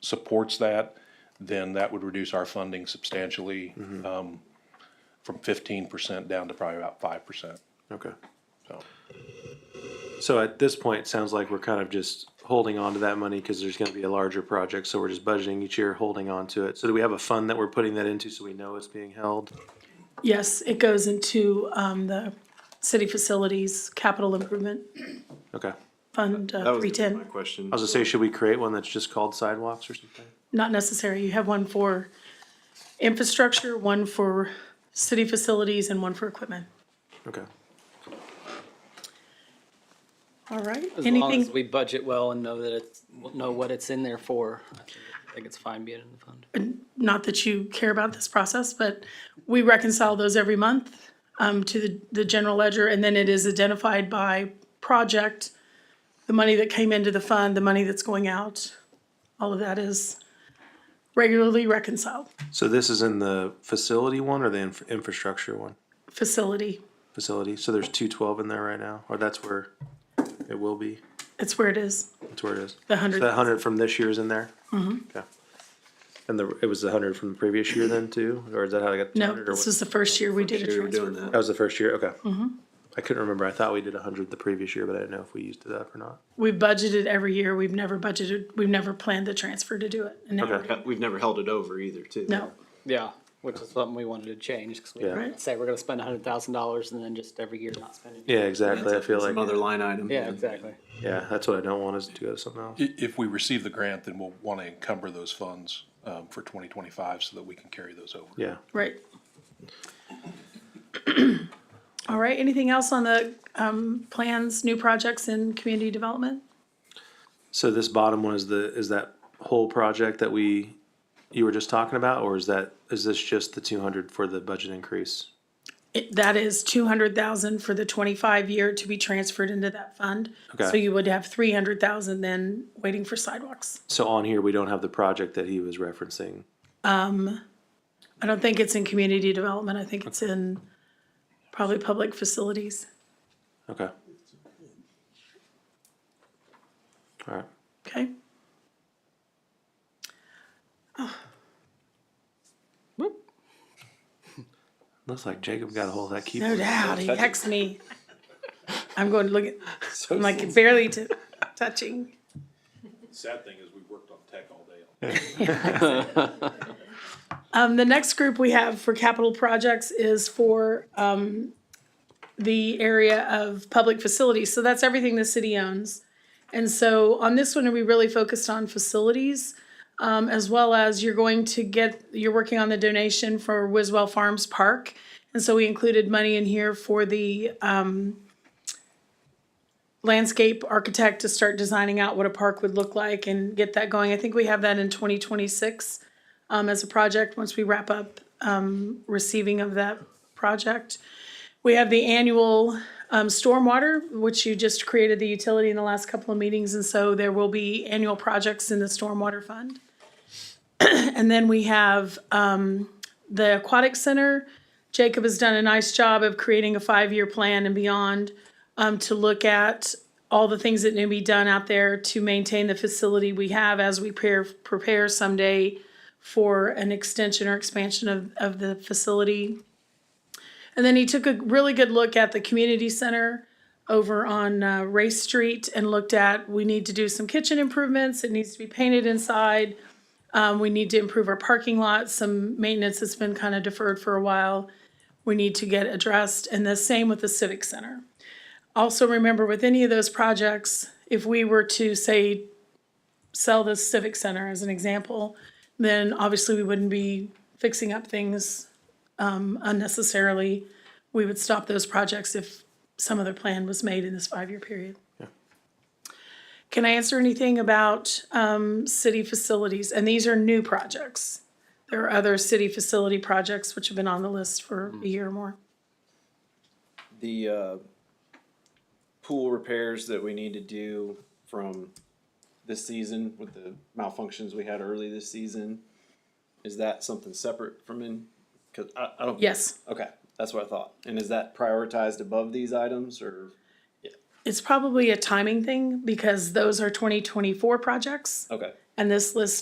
supports that, then that would reduce our funding substantially, um, from fifteen percent down to probably about five percent, Okay. so. So at this point, it sounds like we're kind of just holding on to that money because there's going to be a larger project. So we're just budgeting each year, holding on to it. So do we have a fund that we're putting that into so we know it's being held? Yes, it goes into um, the city facilities capital improvement Okay. I fund That uh, was three gonna ten. be my question. was gonna say, should we create one that's just called sidewalks or something? Not necessary. You have one for infrastructure, one for city facilities, and one for equipment. Okay. All right. As long as Anything, we budget well and know that it's, know what it's in there for, I think- I think it's fine being in the fund. not that you care about this process, but we reconcile those every month um, to the, the general ledger, and then it is identified by project, the money that came into the fund, the money that's going out. All of that is regularly reconciled. So this is in the facility one or the inf- infrastructure one? Facility, Facility. So there's two twelve in there right now, or that's where it will be. that's where it is. That's where it is. The hundred- So That hundred from this year is in there? Mm-hmm. Okay. And the, it was the hundred from the previous year then too, or is that how I got? the No, 200 or this Mm-hmm. what? was the first year we did a Sure you're doing transfer. that. That was the first year, okay. I couldn't remember. I thought we did hundred the previous year, but I didn't know if we used it up or not. We budgeted every year. We've never budgeted, we've never planned the transfer to do it. And now we're Okay. doing- Uh, We've never held it over either, too. No, Yeah, which is something we wanted to change, because we Yeah. didn't Right. say we're gonna spend a hundred thousand dollars and then just every year not spending. Yeah, exactly. I feel Some like, other line item. Yeah, exactly. yeah, that's what I don't want is to go to something else. I- if we receive the grant, then we'll wanna encumber those funds, um, for twenty twenty-five so that we can carry those over. Yeah. right. All right, anything else on the um, plans, new projects in community development? So this bottom one is the, is that whole project that we, you were just talking about, or is that, is this just the two hundred for the budget increase? It- That is two hundred thousand for the twenty-five year to be transferred into that fund. Okay. So you would have three hundred thousand then waiting for sidewalks. So on here, we don't have the project that he was referencing. I don't think it's in community development. I think it's in probably public facilities. Okay. All right. Okay. Looks like Jacob got a hold of that No keyboard. doubt, he texts me. I'm going to look at, I'm like barely to, touching. Sad thing is we worked on tech all day. Um, the next group we have for capital projects is for, um, the area of public facilities, so that's everything the city owns. And so on this one, we really focused on facilities, um, as well as you're going to get, you're working on the donation for Wiswell Farms Park. And so we included money in here for the, um, landscape architect to start designing out what a park would look like and get that going. I think we have that in twenty twenty-six um, as a project, once we wrap up um, receiving of that project. We have the annual um, stormwater, which you just created the utility in the last couple of meetings, and so there will be annual projects in the stormwater fund. And then we have um, the aquatic center. Jacob has done a nice job of creating a five-year plan and beyond um, to look at all the things that need to be done out there to maintain the facility we have as we prepare, prepare someday for an extension or expansion of, of the facility. And then he took a really good look at the community center over on uh, Race Street and looked at, we need to do some kitchen improvements, it needs to be painted inside. Um, we need to improve our parking lot, some maintenance that's been kind of deferred for a while. We need to get addressed, and the same with the civic center also remember with any of those projects, if we were to say sell the civic center as an example, then obviously we wouldn't be fixing up things um, unnecessarily. We would stop those projects if some other plan was made in this five-year period. Can I answer anything about um, city facilities? And these are new projects. There are other city facility projects which have been on the list for a year or more. The, uh, pool repairs that we need to do from this season with the malfunctions we had early this season, is that something separate from in, cause I, I don't. Yes. Okay, that's what I thought. And is that prioritized above these items or, It's probably a timing thing because those are twenty twenty-four projects okay? and this list